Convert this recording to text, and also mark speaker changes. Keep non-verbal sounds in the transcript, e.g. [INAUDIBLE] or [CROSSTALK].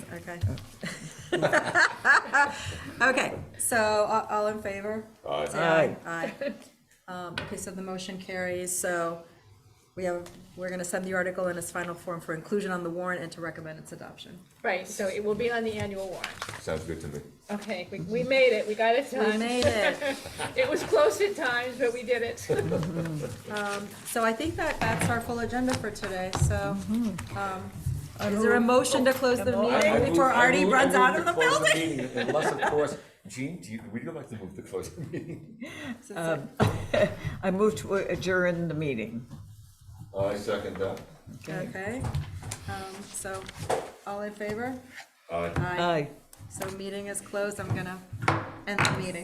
Speaker 1: Okay. Uh. [LAUGHS] Okay, so a- all in favor?
Speaker 2: Aye.
Speaker 1: Say Aye. Aye. Um, Okay, so the motion carries, so we have, we're going to send the article in its final form for inclusion on the warrant and to recommend its adoption.
Speaker 3: Right, so it will be on the annual warrant.
Speaker 2: Sounds good to me.
Speaker 3: Okay, we, we made it, we got it done.
Speaker 1: We made it.
Speaker 3: It was close at times, but we did it.
Speaker 1: So I think that that's our full agenda for today, so, um, is there a motion to close the meeting before Artie runs out of the building?
Speaker 2: Unless, of course, Jean, do you, would you like to move to close the meeting?
Speaker 4: I move to adjourn the meeting.
Speaker 2: I second that.
Speaker 1: Okay, um, so, all in favor?
Speaker 2: Aye.
Speaker 1: Aye.
Speaker 4: Aye.
Speaker 1: So meeting is closed, I'm gonna end the meeting.